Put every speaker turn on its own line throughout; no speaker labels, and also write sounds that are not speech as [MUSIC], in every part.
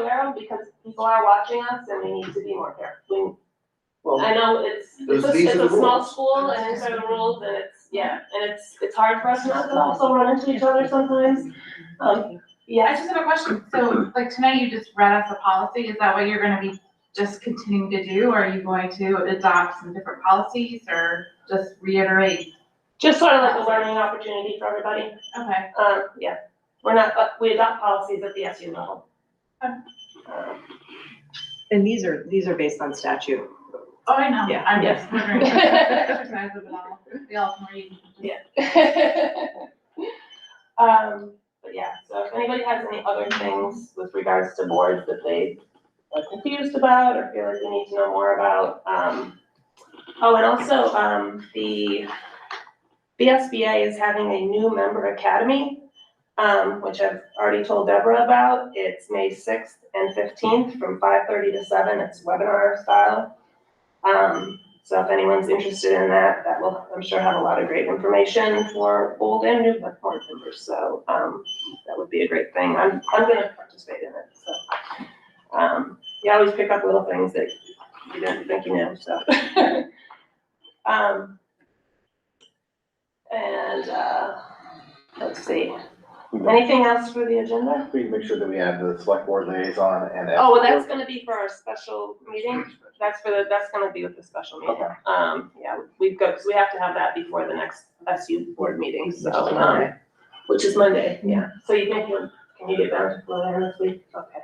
them because people are watching us and we need to be more careful. We-
Well,
I know it's, it's
Those-
a,
these
it's
are
a
the
small
rules.
school and these are the rules and it's, yeah, and it's, it's hard for us not to also run into each other sometimes. Um,
I
yeah,
just have a question. So like tonight you just read us a policy. Is that what you're gonna be just continuing to do? Or are you going to adopt some different policies or just reiterate?
just sort of like a learning opportunity for everybody.
Okay,
Um, yeah, we're not, but we adopt policies at the SU level.
Okay.
Um,
And these are, these are based on statute.
oh, I know.
Yeah.
I'm just
[LAUGHS]
wondering. Exercise of it all. We all can read.
[LAUGHS] Um, but yeah, so if anybody has any other things with regards to boards that they are confused about or feel like they need to know more about, um. Oh, and also, um, the BSBA is having a new member academy, um, which I've already told Deborah about. It's May sixth and fifteenth from five thirty to seven. It's webinar style. Um, so if anyone's interested in that, that will, I'm sure, have a lot of great information for old and new board members. So, um, that would be a great thing. I'm, I'm gonna participate in it, so. Um, you always pick up little things that you didn't think you knew, so. [LAUGHS] Um, and, uh, let's see, anything else for the agenda?
we make sure that we have the select board liaison and.
Oh, well, that's gonna be for our special meeting. That's for the, that's gonna be with the special meeting. Um, yeah, we've got, because we have to have that before the next SU board meeting, so, um, which is Monday, yeah. So you think, you- can you get down to Florida this week? Okay.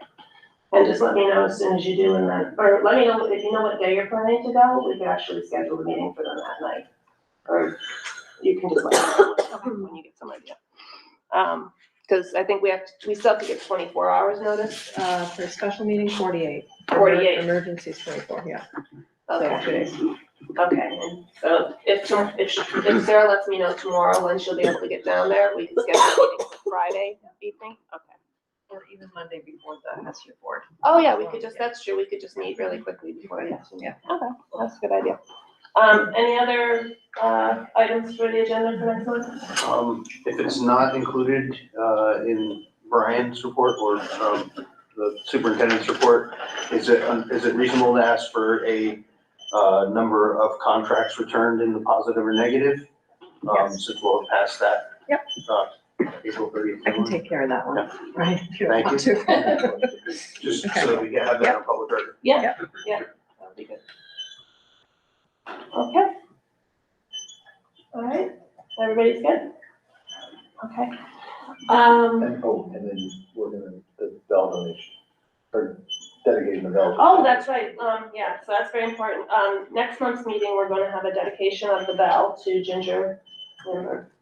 And just let me know as soon as you do, and then, or let me know if you know what day you're planning to go, we could actually schedule the meeting for them that night. Or you can just let me know when you get some idea. Um, because I think we have, to- we still have to get twenty-four hours notice,
Uh, for a special meeting, forty-eight.
forty-eight.
Emergencies, twenty-four, yeah.
Okay, okay, and so if, tom- if, she- if Sarah lets me know tomorrow when she'll be able to get down there, we can schedule a meeting for Friday evening, okay.
Or even Monday before the SU board.
Oh, yeah, we could just, that's true, we could just meet really quickly before, yes, yeah, okay, that's a good idea. Um, any other, uh, items for the agenda for next month?
Um, if it's not included, uh, in Brian's report or, um, the superintendent's report, is it, um, is it reasonable to ask for a, uh, number of contracts returned in the positive or negative? Um,
Yes.
since we'll pass that.
Yep.
uh, April thirtieth.
I can take care of that one, right? if you
Thank
want to.
Just so we can have that on public record.
That'd be good. Okay. All right, everybody's good? Okay. Um.
And, oh, and then we're gonna, the bell donation, or dedicating the bell.
Oh, that's right, um, yeah, so that's very important. Um, next month's meeting, we're gonna have a dedication of the bell to Ginger Lindbergh.
[LAUGHS]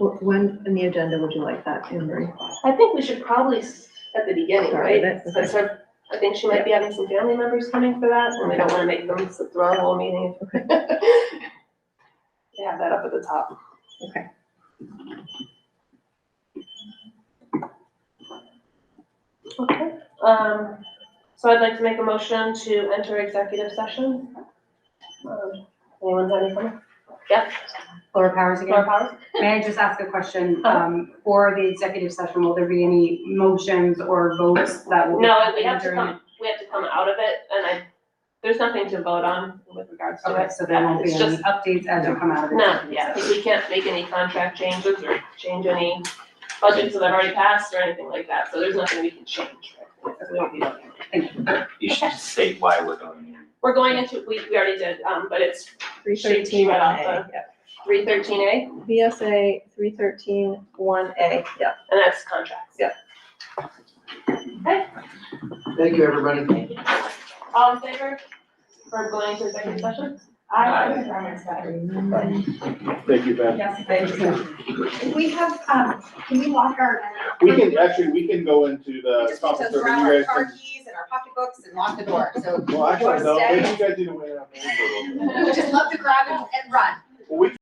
Wh- When in the agenda would you like that, Anne Marie?
I think we should probably s- at the beginning,
Start with
right?
it, okay.
Since her, I think she might be having some family members coming for that, and we don't wanna make them sit through our whole meeting. [LAUGHS] Yeah, that up at the top.
Okay.
Okay, um, so I'd like to make a motion to enter executive session. Um, Anyone have any comments?
Laura
Laura
Powers again.
Powers?
May I just ask a question? Um, for the executive session, will there be any motions or votes that will? be
No, we have to
during it?
come, we have to come out of it, and I, there's nothing to vote on with regards to
Okay,
it.
so there won't be
It's
any
just-
updates as you come out of the
No,
executive
yeah,
session?
we can't make any contract changes or change any budgets that have already passed or anything like that, so there's nothing we can change. We won't be voting.
You should state why we're going.
We're going into, we, we already did, um, but it's
Three
She
thirteen
read
one
off
A, yeah.
three thirteen A, and
VSA three thirteen one A, yeah.
that's contracts.
Yeah.
Thank you, everybody.
Thank you. All in favor for going to executive session?
Aye.
Thank you, Ben. uh,
Yes, thank you.
We have, um, can we lock our?
We can, actually, we can go into
We
the
just need
conference
to
room,
grab
and
our
you guys
car
can.
keys and our pocketbooks and lock the door, so
Well, actually, no,
Wanna
maybe
[LAUGHS]
stay?
you guys need to wait out. for a little bit.
we just love to grab and and run.
Well, we